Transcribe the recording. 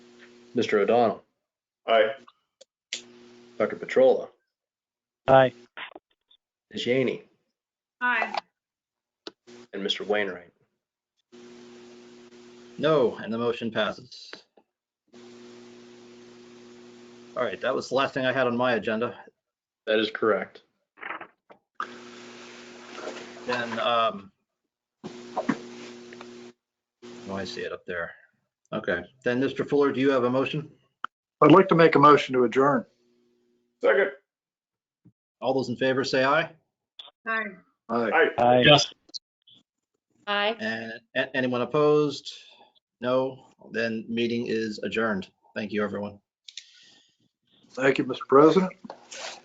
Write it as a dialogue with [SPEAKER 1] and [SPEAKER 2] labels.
[SPEAKER 1] Mr. O'Donnell,
[SPEAKER 2] Aye.
[SPEAKER 1] Dr. Petrola,
[SPEAKER 3] Aye.
[SPEAKER 1] Ms. Janey,
[SPEAKER 4] Aye.
[SPEAKER 1] and Mr. Wainwright.
[SPEAKER 5] No, and the motion passes. All right, that was the last thing I had on my agenda.
[SPEAKER 1] That is correct.
[SPEAKER 5] Then, um, oh, I see it up there. Okay, then Mr. Fuller, do you have a motion?
[SPEAKER 6] I'd like to make a motion to adjourn.
[SPEAKER 2] Second.
[SPEAKER 5] All those in favor say aye.
[SPEAKER 4] Aye.
[SPEAKER 6] Aye.
[SPEAKER 2] Aye.
[SPEAKER 3] Aye.
[SPEAKER 4] Aye.
[SPEAKER 5] And a- anyone opposed? No, then meeting is adjourned. Thank you, everyone.
[SPEAKER 6] Thank you, Mr. President.